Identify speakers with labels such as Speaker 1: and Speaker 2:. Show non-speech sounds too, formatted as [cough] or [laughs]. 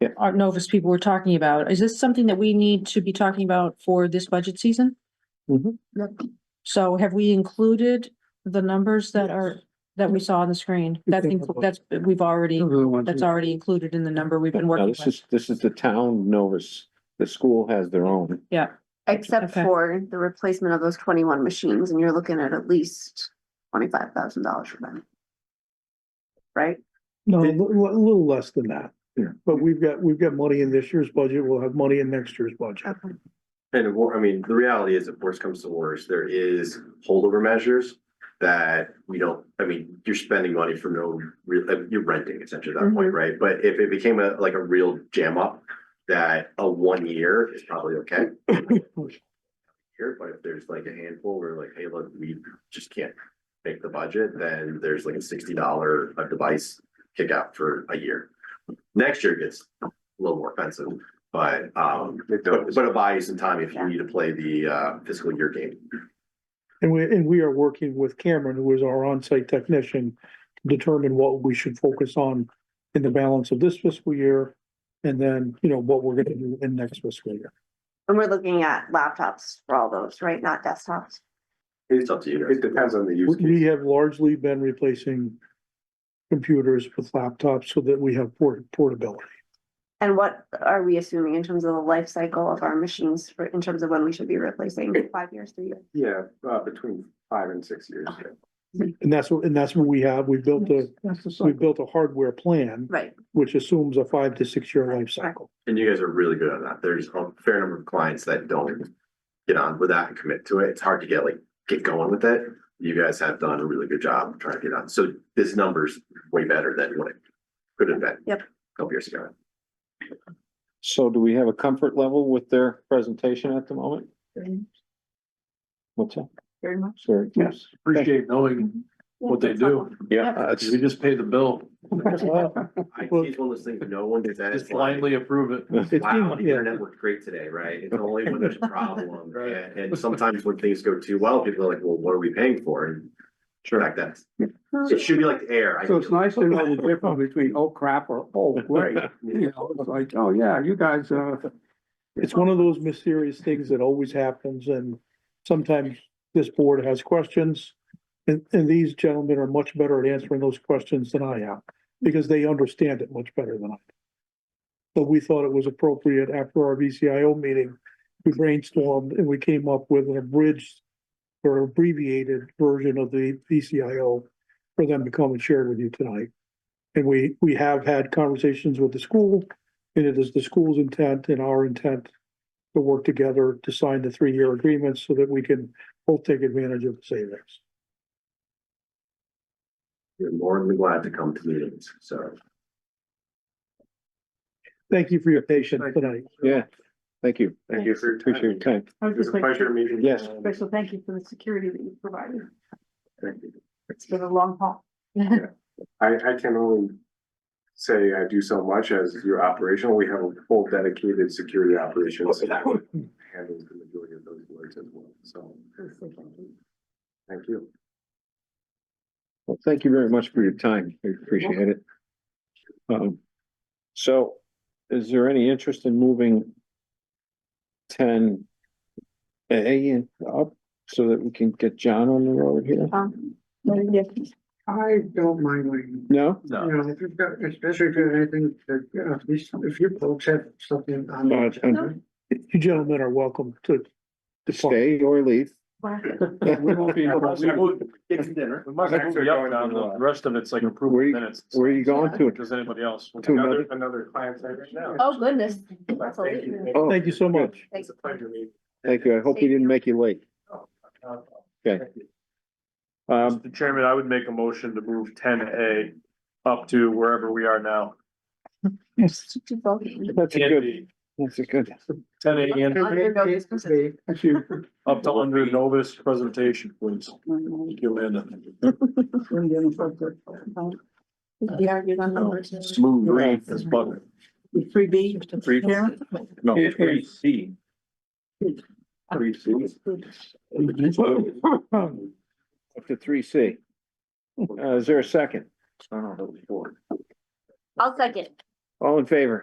Speaker 1: Yeah.
Speaker 2: Art Novus people were talking about. Is this something that we need to be talking about for this budget season?
Speaker 1: Mhm.
Speaker 2: So have we included the numbers that are, that we saw on the screen? That's, inclu- that's, we've already, that's already included in the number we've been
Speaker 1: Now,
Speaker 2: working
Speaker 1: this
Speaker 2: with.
Speaker 1: is, this is the town Novus. The school has their own.
Speaker 2: Yeah,
Speaker 3: Except
Speaker 2: Okay.
Speaker 3: for the replacement of those twenty-one machines, and you're looking at at least twenty-five thousand dollars for them. Right?
Speaker 4: No, a li- li- a little less than that.
Speaker 1: Yeah.
Speaker 4: But we've got, we've got money in this year's budget, we'll have money in next year's budget.
Speaker 3: Okay.
Speaker 5: And of cour- I mean, the reality is, if worse comes to worse, there is holdover measures that we don't, I mean, you're spending money for no real, uh, you're renting essentially at that point, right? But if it became a, like a real jam up, that a one year is probably okay. Here, but if there's like a handful where like, hey, look, we just can't make the budget, then there's like a sixty dollar a device kick out for a year. Next year gets a little more expensive, but um, but but it buys some time if you need to play the uh fiscal year game.
Speaker 4: And we, and we are working with Cameron, who is our on-site technician, to determine what we should focus on in the balance of this fiscal year, and then, you know, what we're gonna do in next fiscal year.
Speaker 3: And we're looking at laptops for all those, right? Not desktops.
Speaker 5: It's up to you. It depends on the
Speaker 4: We- We have largely been replacing computers with laptops so that we have port- portability.
Speaker 3: And what are we assuming in terms of the life cycle of our machines for, in terms of when we should be replacing, five years, three years?
Speaker 5: Yeah, uh between five and six years.
Speaker 4: And that's, what and that's what we have, we built a, we built a hardware plan,
Speaker 3: Right,
Speaker 4: which assumes a five to six-year life cycle.
Speaker 5: And you guys are really good on that. There's a fair number of clients that don't get on with that and commit to it. It's hard to get like, get going with it. You guys have done a really good job trying to get on. So this number's way better than what it could have been.
Speaker 3: Yep.
Speaker 5: a Couple years ago.
Speaker 1: So do we have a comfort level with their presentation at the moment? What's that?
Speaker 3: very much.
Speaker 1: Sorry.
Speaker 4: Yes.
Speaker 6: appreciate knowing what they do.
Speaker 1: Yeah, uh, that's-
Speaker 6: We just pay the bill,
Speaker 5: IT is one of those things no one says.
Speaker 6: just blindly approve it.
Speaker 4: It's
Speaker 5: Wow,
Speaker 4: being-
Speaker 5: the
Speaker 4: yeah,
Speaker 5: internet worked great today, right? It's only when there's a problem. And and sometimes when things go too well, people are like, well, what are we paying for? And sure, like that. It should be like air. I
Speaker 7: So
Speaker 5: feel.
Speaker 7: it's nice to know the difference between oh crap or oh great, you know, it's like, oh yeah, you guys, uh,
Speaker 4: It's one of those mysterious things that always happens and sometimes this board has questions. And, and these gentlemen are much better at answering those questions than I am because they understand it much better than I. do. But we thought it was appropriate after our VCIO meeting, we brainstormed and we came up with an abridged or abbreviated version of the VCIO for them to come and share with you tonight. And we, we have had conversations with the school and it is the school's intent and our intent to work together to sign the three-year agreements so that we can both take advantage of the savings.
Speaker 5: You're more than glad to come to meetings, so.
Speaker 4: Thank you for your patience tonight.
Speaker 1: Yeah, thank you.
Speaker 5: Thank you for your time.
Speaker 1: Appreciate your time.
Speaker 8: I was
Speaker 5: It was a
Speaker 8: just like,
Speaker 5: pleasure meeting you.
Speaker 1: Yes.
Speaker 8: special thank you for the security that you provided.
Speaker 5: Thank you.
Speaker 8: It's been a long haul.
Speaker 9: I, I can only say I do so much as your operational. We have a full dedicated security operations. that Handles the majority of those words as well, so. Thank you.
Speaker 1: Well, thank you very much for your time. I appreciate it. Um, so is there any interest in moving ten A up so that we can get John on the road here?
Speaker 8: Um, yes,
Speaker 7: I don't mind waiting.
Speaker 1: No?
Speaker 7: You know, if you've got, especially if you have anything, that, uh, you know, if these, if you folks have something on. the
Speaker 1: Uh,
Speaker 7: agenda,
Speaker 4: You gentlemen are welcome to depart.
Speaker 1: Stay or leave?
Speaker 6: We won't be.
Speaker 5: Get some dinner.
Speaker 6: We must actually up on the the rest of it's like approval
Speaker 1: Where you-
Speaker 6: minutes.
Speaker 1: [laughs] Where are you going to?
Speaker 6: Does anybody else?
Speaker 1: To another,
Speaker 9: Another client side right now.
Speaker 3: Oh, goodness. That's a
Speaker 9: Thank
Speaker 3: lot.
Speaker 9: you.
Speaker 1: oh,
Speaker 4: Thank you so much.
Speaker 3: Thanks.
Speaker 9: It's a pleasure meeting.
Speaker 1: thank you. I hope he didn't make you late. Um,
Speaker 6: Mr. Chairman, I would make a motion to move ten A up to wherever we are now.
Speaker 8: yes. Too bulky.
Speaker 1: that's a good, that's a good.
Speaker 6: Ten A and
Speaker 3: Under no business.
Speaker 7: If you-
Speaker 6: up to under Novus presentation, please. Thank you, Amanda.
Speaker 3: We argued on the original.
Speaker 6: Smooth green as butter.
Speaker 8: Three B.
Speaker 6: Three- No,
Speaker 7: It-
Speaker 6: three C.
Speaker 5: Three seats.
Speaker 1: Up to three C. Uh, is there a second?
Speaker 5: I don't know, four.
Speaker 3: I'll second.
Speaker 1: All in favor?